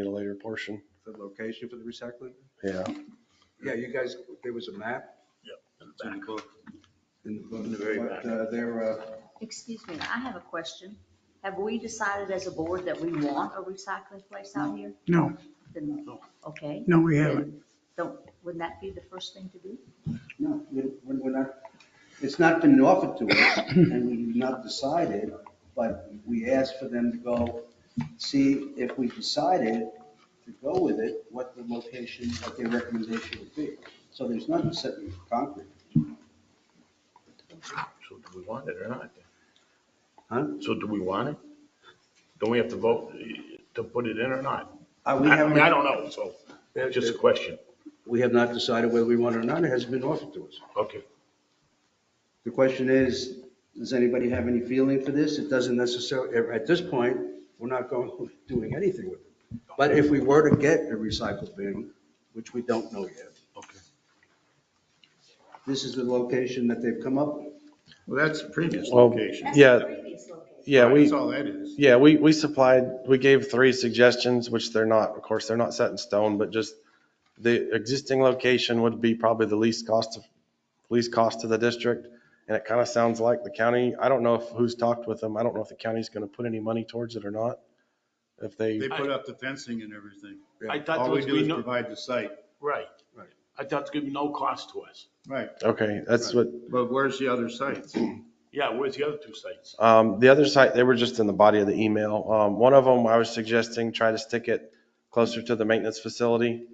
in a later portion. the location for the recycling? Yeah. Yeah, you guys, there was a map Back. in the book, In the very but uh, there, uh, Excuse me, I have a question. Have we decided as a board that we want a recycling place out here? No, Then, okay. no, we haven't. Then Don't, wouldn't that be the first thing to do? No, we- we're we're not, it's not been offered to us, and we've not decided, but we asked for them to go see if we decided to go with it, what the location, what their recommendation would be. So there's nothing set in concrete. So do we want it or not? Huh? So do we want it? Don't we have to vote to put it in or not? Uh, I We I mean, I haven't, don't know, so it's just a question. we have not decided whether we want it or not, it hasn't been offered to us. Okay. The question is, does anybody have any feeling for this? It doesn't necessarily, at this point, we're not going, doing anything with it. But if we were to get a recycle bin, which we don't know yet. Okay. This is the location that they've come up with. Well, that's the previous Well, location. Yeah. Yeah, we, That's all that is. yeah, we, we supplied, we gave three suggestions, which they're not, of course, they're not set in stone, but just the existing location would be probably the least cost of, least cost to the district. And it kind of sounds like the county, I don't know if, who's talked with them. I don't know if the county's going to put any money towards it or not. If They they, put up the fencing and everything. I thought All there we was do gonna is be no, provide the site. right. I thought there was gonna be no cost to us. Right, okay, that's what, but where's the other sites? Yeah, where's the other two sites? Um, the other site, they were just in the body of the email. Um, one of them, I was suggesting try to stick it closer to the maintenance facility.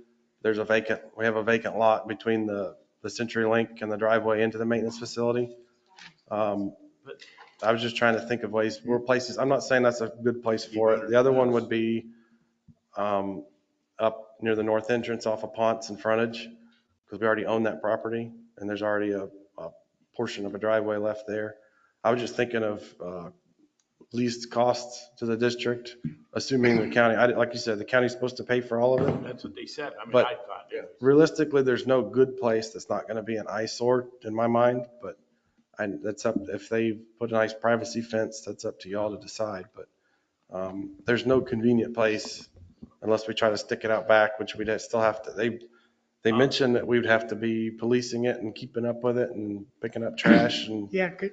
There's a vacant, we have a vacant lot between the, the Century Link and the driveway into the maintenance facility. Um, But- I was just trying to think of ways, where places, I'm not saying that's a good place for it. The other one would be, um, up near the north entrance off of Ponce and frontage, because we already own that property and there's already a, a portion of a driveway left there. I was just thinking of uh, least costs to the district, assuming the county, I, like you said, the county's supposed to pay for all of it. That's what they said. I mean, But- I thought, yeah. Realistically, there's no good place that's not going to be an eyesore in my mind, but I, that's up, if they put a nice privacy fence, that's up to y'all to decide, but um, there's no convenient place unless we try to stick it out back, which we'd still have to, they, they mentioned that we would have to be policing it and keeping up with it and picking up trash and Yeah, could,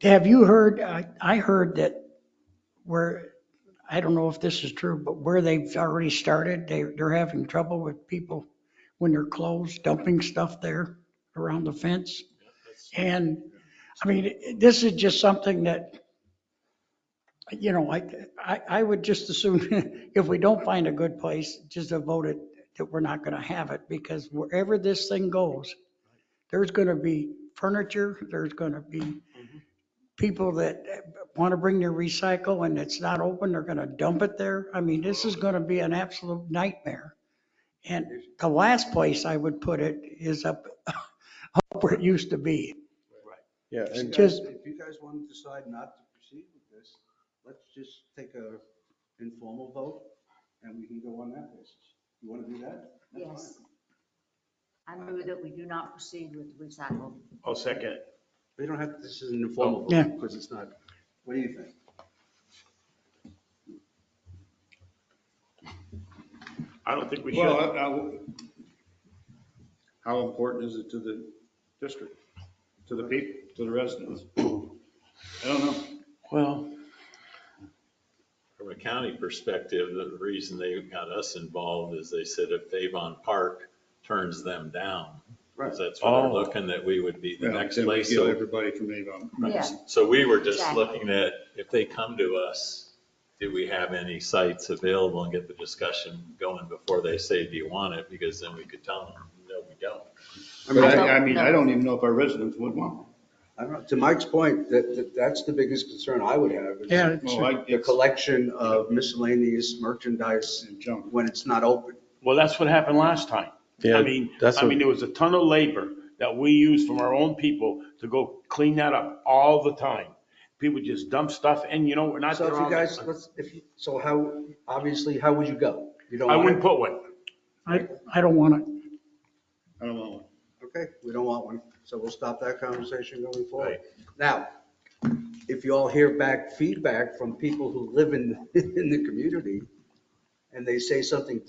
have you heard, I, I heard that where, I don't know if this is true, but where they've already started, they, they're having trouble with people when they're closed dumping stuff there around the fence. And, I mean, this is just something that, you know, I, I, I would just assume if we don't find a good place, just to vote it, that we're not gonna have it, because wherever this thing goes, there's going to be furniture, there's going to be people that want to bring their recycle and it's not open, they're going to dump it there. I mean, this is going to be an absolute nightmare. And the last place I would put it is up, up where it used to be. Yeah, and Just- If you guys want to decide not to proceed with this, let's just take a informal vote, and we can go on that basis. You want to do that? That's fine. Yes. I move that we do not proceed with recycle. I'll second it. We don't have, this is an informal Yeah. vote, because it's not, what do you think? I don't think we Well, should. I- I- how important is it to the district, to the people, to the residents? I don't know. Well. From a county perspective, the reason they got us involved is they said if Avon Park turns them down, because that's what they're Oh. looking, that we would be the Well, next then we place. Give So, everybody from Avon. Yeah. so we were just Exactly. looking at, if they come to us, do we have any sites available and get the discussion going before they say, do you want it? Because then we could tell them, no, we don't. I But mean, I- I, I mean, I don't even know if our residents would want. one. I don't know, to Mike's point, that, that, that's the biggest concern I would have. is Yeah, it's- Well, I, The it's collection of miscellaneous merchandise junk. when it's not open. Well, that's what happened last time. Yeah, I mean, that's I what- mean, there was a ton of labor that we used from our own people to go clean that up all the time. People just dump stuff and you know, we're not. So if there all you the guys, time. let's, if, you- so how, obviously, how would you go? You don't I want wouldn't it? put one. I, I don't want it. I don't want one. Okay, we don't want one, so we'll stop that conversation going forward. Right. Now, if you all hear back feedback from people who live in, in the community and they say something